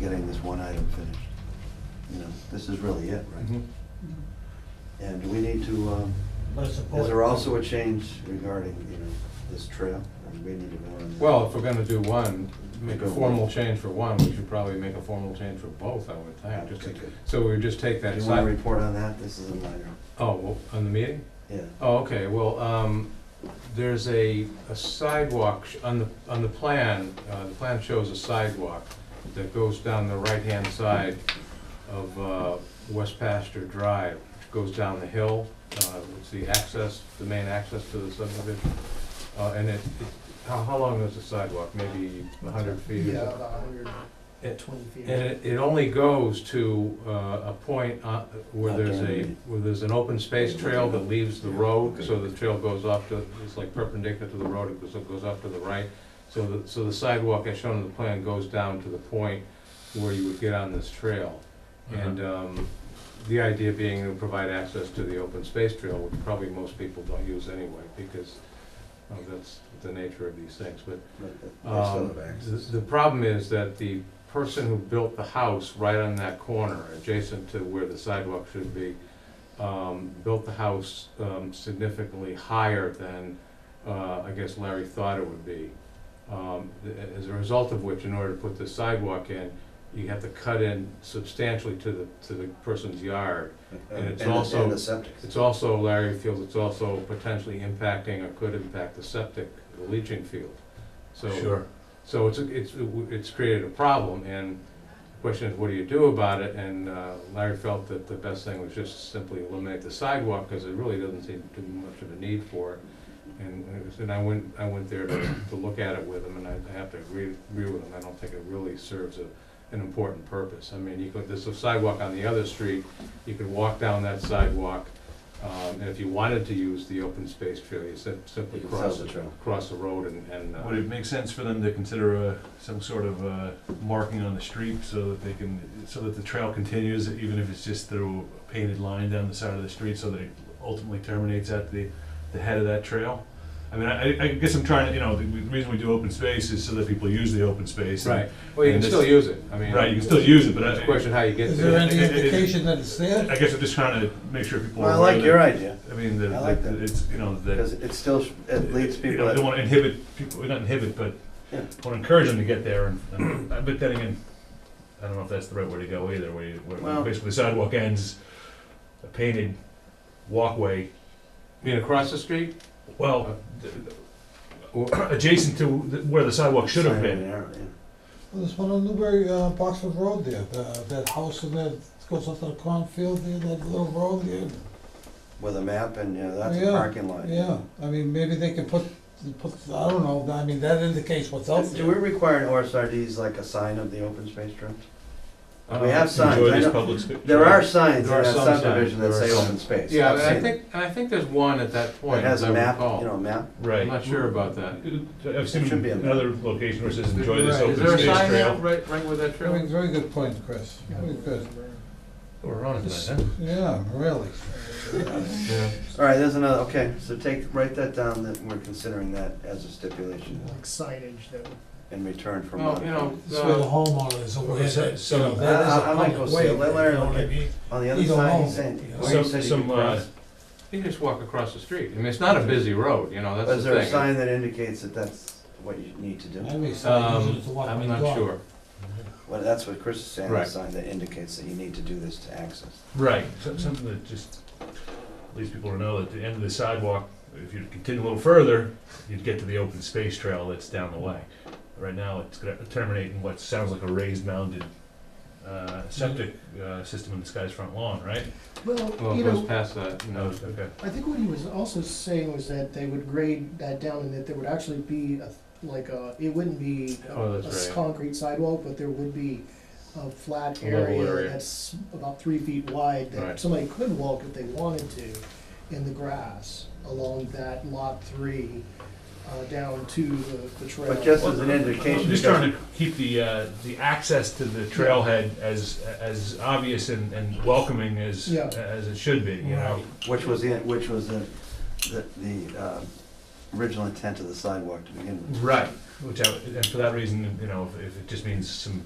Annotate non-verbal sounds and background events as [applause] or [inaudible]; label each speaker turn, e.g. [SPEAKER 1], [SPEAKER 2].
[SPEAKER 1] getting this one item finished. You know, this is really it,
[SPEAKER 2] Mm-hmm.
[SPEAKER 1] right? And do we need to, um,
[SPEAKER 3] But support.
[SPEAKER 1] is there also a change regarding, you know, this trail? And we need to know on that.
[SPEAKER 2] Well, if we're gonna do one, make
[SPEAKER 1] Go
[SPEAKER 2] a
[SPEAKER 1] with-
[SPEAKER 2] formal change for one, we should probably make a formal change for both, I would think. just to-
[SPEAKER 1] Okay.
[SPEAKER 2] So we would just take
[SPEAKER 1] Do
[SPEAKER 2] that
[SPEAKER 1] you want to
[SPEAKER 2] side,
[SPEAKER 1] report on that? This is a minor,
[SPEAKER 2] oh, well, on the meeting?
[SPEAKER 1] yeah.
[SPEAKER 2] Oh, okay, well, um, there's a a sidewalk, sh- on the, on the plan, uh, the plan shows a sidewalk that goes down the right-hand side of uh, West Pasture Drive, which goes down the hill, uh, it's the access, the main access to the subdivision. Uh, And it, it- how, how long is the sidewalk, maybe a hundred feet? or
[SPEAKER 4] Yeah,
[SPEAKER 2] something?
[SPEAKER 4] about hundred
[SPEAKER 2] It-
[SPEAKER 4] and twenty feet.
[SPEAKER 2] And it, it only goes to uh, a point on- where there's a, where there's an open space trail that leaves the road, so the trail goes off to, it's like perpendicular to the road, it goes, it goes off to the right. So the, so the sidewalk as shown in the plan goes down to the point where you would get on this trail. And um, the idea being to provide access to the open space trail, which probably most people don't use anyway, because uh, that's the nature of these things, but
[SPEAKER 1] but that- they still
[SPEAKER 2] um,
[SPEAKER 1] have
[SPEAKER 2] The
[SPEAKER 1] access.
[SPEAKER 2] the problem is that the person who built the house right on that corner, adjacent to where the sidewalk should be, um, built the house um, significantly higher than, uh, I guess Larry thought it would be. Um, th- As a result of which, in order to put the sidewalk in, you have to cut in substantially to the, to the person's yard. and it's
[SPEAKER 1] the-
[SPEAKER 2] also-
[SPEAKER 1] And the septic.
[SPEAKER 2] It's also, Larry feels it's also potentially impacting or could impact the septic, the leaching field. So
[SPEAKER 5] Sure.
[SPEAKER 2] So it's, it's, it's created a problem, and the question is, what do you do about it? And uh, Larry felt that the best thing was just simply eliminate the sidewalk, because it really doesn't seem to be much of a need for it. And, and it was- and I went, I went there to, to look at it with him, and I I have to agree, agree with him, I don't think it really serves a, an important purpose. I mean, you could, there's a sidewalk on the other street, you could walk down that sidewalk, um, and if you wanted to use the open space trail, you sim- simply
[SPEAKER 1] You can sell
[SPEAKER 2] cross,
[SPEAKER 1] the trail.
[SPEAKER 2] cross the road and, and. uh,
[SPEAKER 5] Would it make sense for them to consider uh, some sort of uh, marking on the street so that they can, so that the trail continues, even if it's just through a painted line down the side of the street, so that it ultimately terminates at the, the head of that trail? I mean, I, I guess I'm trying to, you know, the reason we do open space is so that people use the open space. and-
[SPEAKER 2] Right, well, you can
[SPEAKER 5] and this-
[SPEAKER 2] still use it, I mean.
[SPEAKER 5] Right, you can still use it, but
[SPEAKER 2] It's a
[SPEAKER 5] I,
[SPEAKER 2] question how you get
[SPEAKER 3] Is
[SPEAKER 2] to
[SPEAKER 3] there
[SPEAKER 2] it.
[SPEAKER 3] any indication that it's there?
[SPEAKER 5] I guess I'm just trying to make sure people.
[SPEAKER 1] Well, I
[SPEAKER 5] are aware
[SPEAKER 1] like
[SPEAKER 5] that-
[SPEAKER 1] your idea,
[SPEAKER 5] I mean, that,
[SPEAKER 1] I like
[SPEAKER 5] that
[SPEAKER 1] that.
[SPEAKER 5] it's, you know, that.
[SPEAKER 1] because it still, sh- it leads
[SPEAKER 5] You
[SPEAKER 1] people,
[SPEAKER 5] know, don't
[SPEAKER 1] that-
[SPEAKER 5] want to inhibit people, not inhibit, but
[SPEAKER 1] Yeah.
[SPEAKER 5] want to encourage them to get there. And, and but then again, I don't know if that's the right way to go either. Where, you, where
[SPEAKER 1] Well-
[SPEAKER 5] basically the sidewalk ends, a painted walkway.
[SPEAKER 2] You mean across the street?
[SPEAKER 5] Well, th-
[SPEAKER 1] Uh,
[SPEAKER 5] th- [coughs] adjacent to the, where the sidewalk should have
[SPEAKER 1] Sign
[SPEAKER 5] been.
[SPEAKER 1] and arrow, yeah.
[SPEAKER 3] Well, There's one on Newbury, uh, Boxford Road there, the- that house in there, that goes up to the cornfield there, that little road there.
[SPEAKER 1] With a map and, you know, that's a
[SPEAKER 3] Yeah,
[SPEAKER 1] parking lot.
[SPEAKER 3] Yeah, I mean, maybe they can put, put, I don't know, I mean, that indicates what's out
[SPEAKER 1] Do we
[SPEAKER 3] there.
[SPEAKER 1] require in OSRDs like a sign of the open space trail? We
[SPEAKER 2] Uh,
[SPEAKER 1] have signs,
[SPEAKER 5] Enjoy
[SPEAKER 1] I
[SPEAKER 5] this
[SPEAKER 1] know-
[SPEAKER 5] public sp-
[SPEAKER 1] There are signs in
[SPEAKER 2] There are
[SPEAKER 1] that
[SPEAKER 2] some signs.
[SPEAKER 1] subdivision that
[SPEAKER 2] There are
[SPEAKER 1] say
[SPEAKER 2] some.
[SPEAKER 1] open space.
[SPEAKER 2] Yeah,
[SPEAKER 1] I've
[SPEAKER 2] and I
[SPEAKER 1] seen it.
[SPEAKER 2] think, and I think there's one at that point,
[SPEAKER 1] It has
[SPEAKER 2] as I
[SPEAKER 1] a map, you know,
[SPEAKER 2] recall.
[SPEAKER 1] a map.
[SPEAKER 2] I'm
[SPEAKER 5] right. Uh,
[SPEAKER 2] not sure about that.
[SPEAKER 5] I've seen
[SPEAKER 1] It should be a-
[SPEAKER 5] another location where it says enjoy this
[SPEAKER 3] Right.
[SPEAKER 5] open
[SPEAKER 2] Is there a
[SPEAKER 5] space
[SPEAKER 2] sign there,
[SPEAKER 5] trail.
[SPEAKER 2] right, right where that
[SPEAKER 3] I
[SPEAKER 2] trail
[SPEAKER 3] mean,
[SPEAKER 2] is?
[SPEAKER 3] very good point, Chris, very good,
[SPEAKER 5] We're on
[SPEAKER 3] yeah, really.
[SPEAKER 5] Yeah.
[SPEAKER 1] All right, there's another, okay, so take, write that down, that we're considering that as a stipulation
[SPEAKER 6] like signage that would
[SPEAKER 1] in return for
[SPEAKER 2] Well, you
[SPEAKER 1] monitoring.
[SPEAKER 2] know,
[SPEAKER 4] This way the
[SPEAKER 2] uh,
[SPEAKER 4] homeowner is aware
[SPEAKER 5] Is that
[SPEAKER 4] that, you
[SPEAKER 5] some-
[SPEAKER 4] know, that is
[SPEAKER 1] I-
[SPEAKER 4] a
[SPEAKER 1] I- I might go
[SPEAKER 4] public
[SPEAKER 1] see
[SPEAKER 4] way,
[SPEAKER 1] it.
[SPEAKER 4] you
[SPEAKER 1] Let Larry
[SPEAKER 4] know
[SPEAKER 1] look
[SPEAKER 4] what I
[SPEAKER 1] at it.
[SPEAKER 4] mean?
[SPEAKER 1] On the other
[SPEAKER 4] you don't
[SPEAKER 1] side,
[SPEAKER 4] know.
[SPEAKER 1] he's saying,
[SPEAKER 4] Yeah.
[SPEAKER 1] where you
[SPEAKER 5] Some-
[SPEAKER 1] said you
[SPEAKER 5] some,
[SPEAKER 1] could
[SPEAKER 5] uh,
[SPEAKER 1] cross.
[SPEAKER 2] you can just walk across the street. I mean, it's not a busy road, you know, that's the thing.
[SPEAKER 1] Is there a sign that indicates that that's what you need to do?
[SPEAKER 3] Maybe somebody uses it to
[SPEAKER 2] Um,
[SPEAKER 3] walk
[SPEAKER 2] I'm
[SPEAKER 3] my
[SPEAKER 2] not
[SPEAKER 3] dog.
[SPEAKER 2] sure.
[SPEAKER 1] Well, that's what Chris is saying, a
[SPEAKER 2] Right.
[SPEAKER 1] sign that indicates that you need to do this to access.
[SPEAKER 5] Right, so- something that just leads people to know that the end of the sidewalk, if you continue a little further, you'd get to the open space trail that's down the way. Right now, it's gonna terminate in what sounds like a raised mounded uh, septic uh, system in this guy's front lawn, right?
[SPEAKER 2] Well,
[SPEAKER 6] well
[SPEAKER 2] it
[SPEAKER 6] you
[SPEAKER 2] goes
[SPEAKER 6] know
[SPEAKER 2] past that, you know.
[SPEAKER 5] Okay.
[SPEAKER 6] i think what he was also saying was that they would grade that down and that there would actually be a, like a it wouldn't be a,
[SPEAKER 2] Oh,
[SPEAKER 6] a
[SPEAKER 2] that's
[SPEAKER 6] s-
[SPEAKER 2] right.
[SPEAKER 6] concrete sidewalk but there would be a flat
[SPEAKER 2] A level
[SPEAKER 6] area,
[SPEAKER 2] area.
[SPEAKER 6] that's about three feet wide that
[SPEAKER 2] Right.
[SPEAKER 6] somebody could walk if they wanted to in the grass along that lot three uh, down to the, the trail
[SPEAKER 1] But just as an indication.
[SPEAKER 5] I'm just
[SPEAKER 1] because-
[SPEAKER 5] trying to keep the, uh, the access to the trailhead as, as obvious and, and welcoming as,
[SPEAKER 6] Yeah.
[SPEAKER 5] as it should be, you know?
[SPEAKER 1] Which was the, which was the, the, the uh, original intent of the sidewalk to begin with.
[SPEAKER 5] Right, which I, and for that reason, you know, if, if it just means some